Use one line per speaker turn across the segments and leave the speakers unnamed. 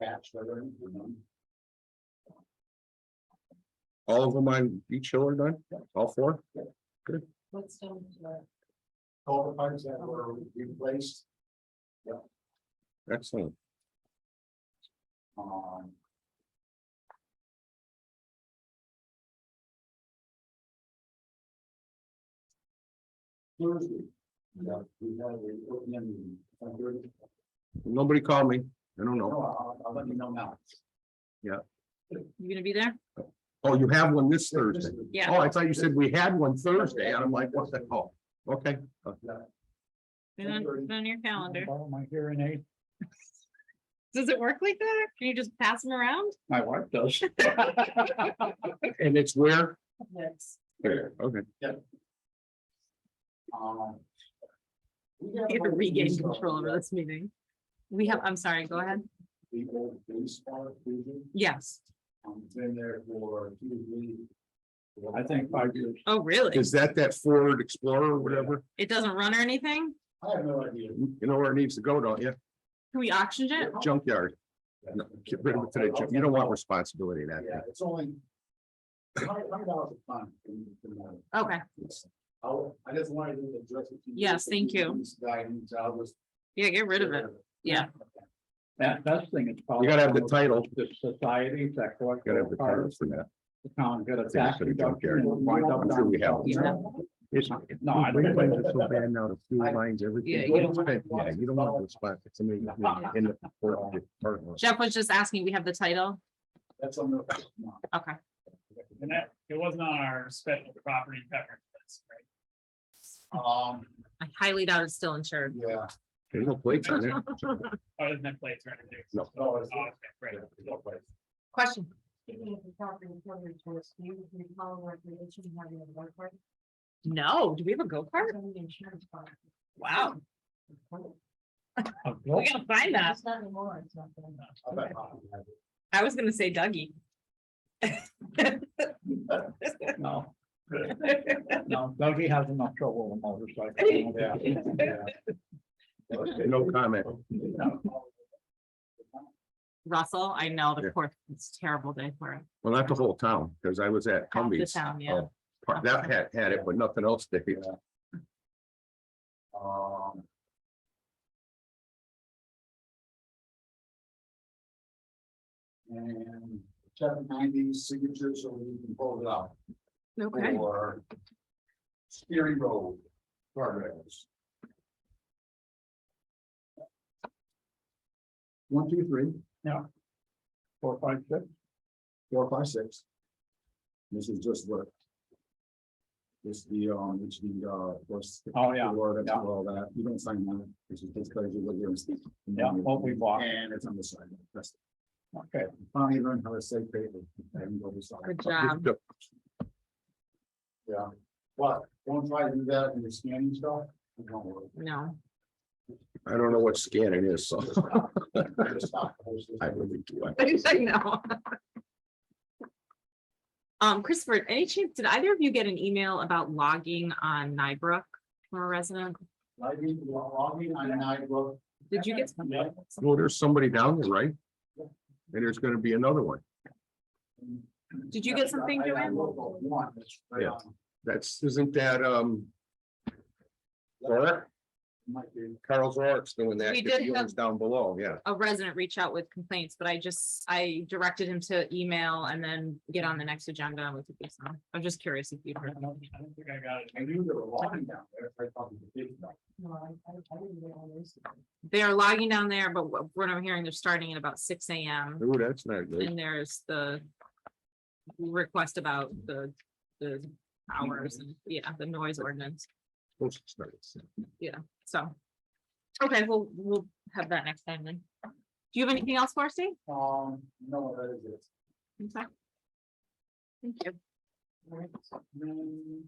patch there, you know.
All of them on each hill are done? All four?
What's down to
All the parts that
Oh.
were replaced,
Excellent.
um. Thursday, yeah, we had the opening, on Thursday.
Nobody called me. I don't
no,
know.
I'll, I'll let you know now.
You gonna be there?
Oh, you have one this Thursday.
Yeah.
Oh, I thought you said we had one Thursday and I'm like, what's that? Oh, okay.
Put it on- put it on your calendar.
Follow my Oh, hearing aid.
Does it work like that? Can you just pass them around?
My wife does.
And it's where?
the?
There, okay.
Um, we got a bunch
You have to
of
regain
these, uh,
control over this meeting. We have, I'm sorry, go ahead.
The old baseball division,
Yes.
I've been there for two, three. I think five years.
Oh, really?
Is that that Ford Explorer or whatever?
It doesn't run or anything?
I have no idea.
You know where it needs to go, don't you?
Can we auction it?
Junkyard. No, Get rid of it today. Jim. You don't want responsibility in that.
Yeah,
thing.
it's only. Hundred, hundred dollars a ton. in- in that.
Okay,
It's- I'll, I just wanted to address it. to you.
Yes, thank you.
This guy, he's out of this-
yeah, get rid of it. Yeah.
That, that's the thing, it's.
You gotta have the title.
The society, that
You gotta have
collective
the title
part,
for that.
the town got a
Things
tax
for the junkyard.
reduction. and wind up
I'm sure we have.
down-
It's-
No, I
Green
don't.
lines are so bad now, the fuel lines, everything.
Yeah,
you don't want-
Yeah, you don't want to spot somebody in the port of department.
Jeff was just asking, we have the title?
That's on the. no.
Okay.
And that, it wasn't on our special property coverage list, right?
Um,
I highly doubt it's still insured.
yeah.
There's no plates on there.
Other than that place, right? there.
No.
No, it's-
Oh, okay, Right.
Question?
Speaking of the property corner towards you, we follow recreation having a work party.
No, do we have a go-kart?
Insurance policy.
Wow,
A
we
goal.
gotta find that.
It's not anymore, it's not. gonna-
I bet Bob has it.
I was gonna say Dougie.
No. No, Dougie has enough trouble with motorcycles.
Yeah, yeah.
No comment.
Russell, I know
Yeah.
the course, it's a terrible day for it.
Well, not the whole town, because I was at
Half the
Cumbies.
town, yeah.
uh, part- That had, had it, but nothing else did.
Um. And seven ninety signatures, so we can pull it out for. Scary Road. guardrails. One, two, three,
Four, five, six.
four, five, six. This is just what. This the, um, it's the, uh, what's.
Oh, yeah.
Or that's
Yeah.
all that, you don't sign that, this is just because you live here. and speak.
Yeah, what we bought.
And it's on the side, that's,
Okay,
finally learned how to say paper, I haven't got this on.
Good job.
uh,
Yeah, but don't try to do that in your scanning stuff, it won't work.
I
No,
don't know what scanning is, so
Just stop the whole system.
I really do. I-
I know. Um, Christopher, any chance, did either of you get an email about logging on Nybrook from a resident?
Logging, logging on an iBook.
Did you get?
Yeah.
Well, there's somebody down there, right? And there's gonna be another one.
Did you get something,
I- I- I
Joanne?
looked at One, that's right
Yeah.
on.
That's, isn't that, um, Zorak?
Might be.
Carl Zorik's doing that.
We
'cause
did
he
have-
lives Down below, yeah.
A resident reach out with complaints, but I just, I directed him to email and then get on the next agenda and we could do some. I'm just curious if you'd
I
heard.
don't I don't think I got it.
I knew there were logging down there, I thought it was a big, no,
No, I, I I didn't get all this.
They are logging down there, but what what I'm hearing, they're starting at about six AM.
Ooh, that's not good.
And there's the request about the, the hours and, yeah, the noise ordinance,
Those starts.
so. Okay, we'll, we'll have that next time then. Do you have anything else for us, Dave?
um, no, that is it.
I'm sorry. Thank you.
Mm,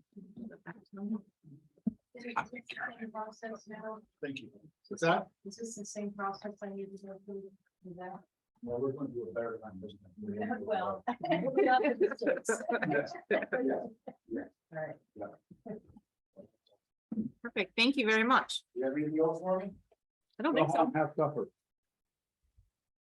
Is it the same process now?
Thank you. What's that?
Is this the same process I need to go through? with that?
Well, we're gonna do a better time this time. We're gonna do a
Well.
better- Yeah,
Alright.
Perfect, thank you very much.
You have anything else for me?
I don't
go
think so.
home, have supper.